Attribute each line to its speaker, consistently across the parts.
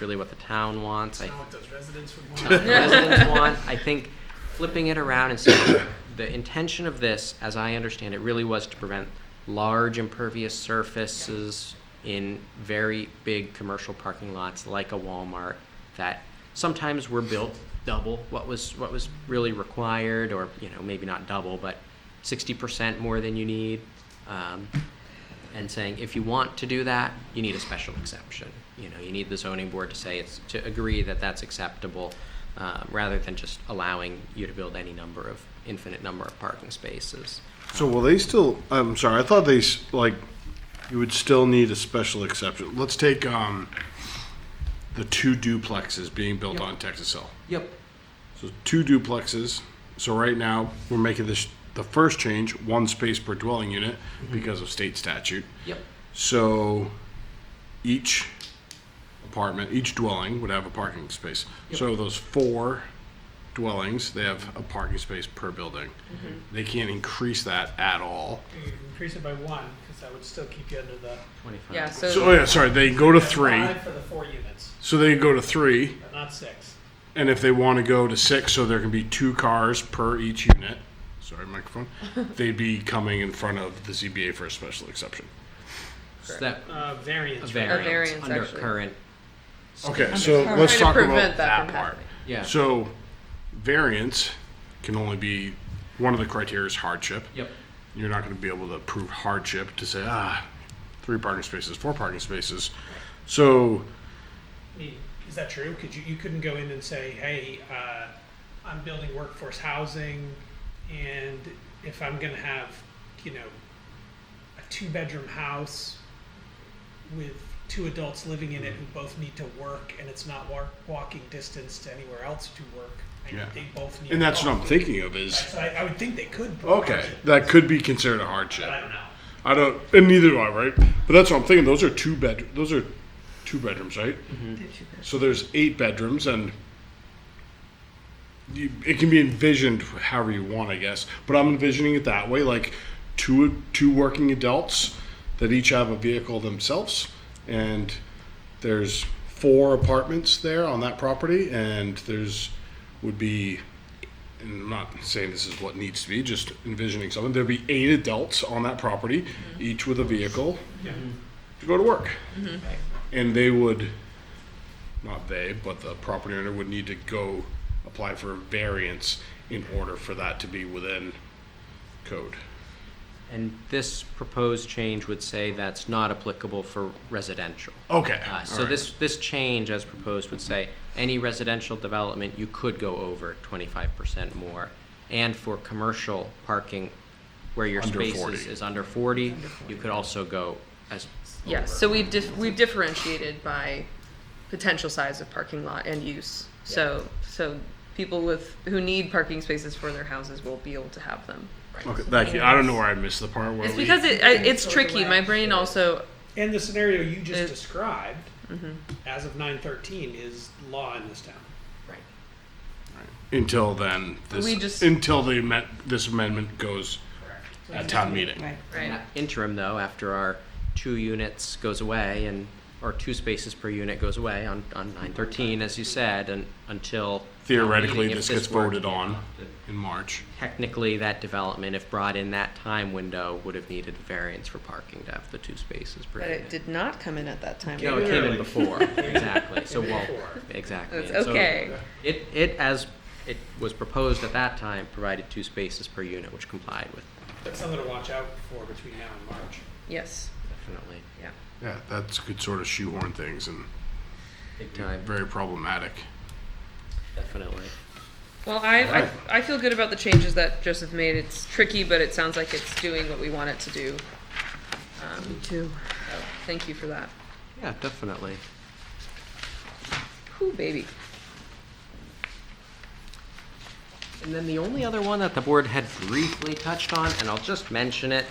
Speaker 1: really what the town wants. I
Speaker 2: Not what those residents would want.
Speaker 1: what the residents want. I think flipping it around and saying the intention of this, as I understand it, really was to prevent large impervious surfaces in very big commercial parking lots like a Walmart that sometimes were built double what was what was really required, or you know maybe not double, but sixty percent more than you need. Um, and saying if you want to do that, you need a special exception. You know, you need the zoning board to say it's to agree that that's acceptable, uh, rather than just allowing you to build any number of infinite number of parking spaces.
Speaker 3: So will they still? I'm sorry. I thought they s- like you would still need a special exception. Let's take um, the two duplexes being built on Texas Hill.
Speaker 1: Yep.
Speaker 3: So two duplexes. So right now we're making this the first change, one space per dwelling unit because of state statute.
Speaker 1: Yep.
Speaker 3: So each apartment, each dwelling would have a parking space. So those four dwellings, they have a parking space per building. They can't increase that at all.
Speaker 2: You could Increase it by one, because that would still keep you under the.
Speaker 1: Twenty-five.
Speaker 4: Yeah, so,
Speaker 3: So oh yeah, sorry, they go to three.
Speaker 2: Five for the four units,
Speaker 3: So they go to three,
Speaker 2: but not six.
Speaker 3: and if they want to go to six, so there can be two cars per each unit. Sorry, microphone. They'd be coming in front of the ZBA for a special exception.
Speaker 1: So that
Speaker 2: Uh,
Speaker 1: a
Speaker 2: variance. right?
Speaker 1: variance,
Speaker 4: variance,
Speaker 1: under
Speaker 4: actually.
Speaker 1: current.
Speaker 3: Okay, so let's
Speaker 4: Trying to
Speaker 3: talk
Speaker 4: prevent
Speaker 3: about
Speaker 4: that
Speaker 3: that
Speaker 4: from
Speaker 3: part.
Speaker 4: happening.
Speaker 1: Yeah.
Speaker 3: So variance can only be, one of the criteria is hardship.
Speaker 1: yep.
Speaker 3: You're not going to be able to prove hardship to say, ah, three parking spaces, four parking spaces. So,
Speaker 2: Me- Is that true? Could you, you couldn't go in and say, hey, uh, I'm building workforce housing, and if I'm gonna have, you know, a two-bedroom house with two adults living in it who both need to work, and it's not wa- walking distance to anywhere else to work,
Speaker 3: Yeah.
Speaker 2: and they both need.
Speaker 3: and that's what I'm
Speaker 2: parking."
Speaker 3: thinking of is,
Speaker 2: So I, I would think they could.
Speaker 3: okay,
Speaker 2: propose it,
Speaker 3: that could be considered a hardship.
Speaker 2: But I don't know.
Speaker 3: I don't, and neither do I, right? But that's what I'm thinking. Those are two bed. Those are two bedrooms, right? So there's eight bedrooms, and you, it can be envisioned however you want, I guess. But I'm envisioning it that way, like two two working adults that each have a vehicle themselves, and there's four apartments there on that property, and there's would be and I'm not saying this is what needs to be, just envisioning something. There'd be eight adults on that property,
Speaker 4: Mm-hmm.
Speaker 3: each with a vehicle
Speaker 2: Yeah.
Speaker 3: to go to work. And they would, not they, but the property owner would need to go apply for a variance in order for that to be within code.
Speaker 1: And this proposed change would say that's not applicable for residential.
Speaker 3: Okay.
Speaker 1: Uh, So this, this change as proposed would say, any residential development, you could go over twenty-five percent more. And for commercial parking, where your
Speaker 3: Under
Speaker 1: space
Speaker 3: 40.
Speaker 1: is, is under forty, you could also go as.
Speaker 4: yeah,
Speaker 1: over.
Speaker 4: so we dif- we differentiated by potential size of parking lot and use. So so people with who need parking spaces for their houses will be able to have them.
Speaker 3: Okay, thank you. I don't know where I missed the part where
Speaker 4: It's
Speaker 3: we.
Speaker 4: because it I, it's
Speaker 2: So
Speaker 4: tricky. My brain also
Speaker 2: And the scenario you just
Speaker 4: It-
Speaker 2: described, as of nine thirteen, is law in this town.
Speaker 1: Right.
Speaker 3: until then, this
Speaker 4: We just-
Speaker 3: until the amend, this amendment goes at town meeting.
Speaker 4: right.
Speaker 1: Interim though, after our two units goes away and, or two spaces per unit goes away on, on nine thirteen, as you said, and until.
Speaker 3: Theoretically,
Speaker 1: if
Speaker 3: this gets
Speaker 1: were-
Speaker 3: voted on in March.
Speaker 1: Technically, that development, if brought in that time window, would have needed a variance for parking to have the two spaces per
Speaker 4: But
Speaker 1: unit.
Speaker 4: it did not come in at that time.
Speaker 1: No, it came in before, exactly, so well, exactly.
Speaker 4: That's
Speaker 1: And so
Speaker 4: okay.
Speaker 1: It, it, as it was proposed at that time, provided two spaces per unit, which complied with,
Speaker 2: That's something to watch out for between now and March.
Speaker 4: Yes.
Speaker 1: definitely,
Speaker 4: Yeah.
Speaker 3: Yeah, that's could sort of shoehorn things and
Speaker 1: big time,
Speaker 3: very problematic.
Speaker 1: definitely.
Speaker 4: Well, I, I, I feel good about the changes that Joseph made. It's tricky, but it sounds like it's doing what we want it to do. Um, Me too. Thank you for that.
Speaker 1: Yeah, definitely.
Speaker 4: Whew, baby.
Speaker 1: And then the only other one that the board had briefly touched on, and I'll just mention it,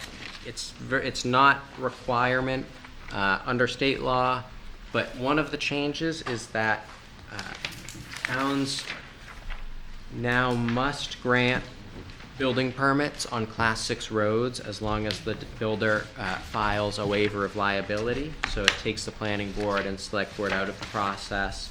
Speaker 1: it's, ver- it's not requirement uh, under state law, but one of the changes is that uh, towns now must grant building permits on class six roads as long as the builder uh, files a waiver of liability. So it takes the planning board and select board out of the process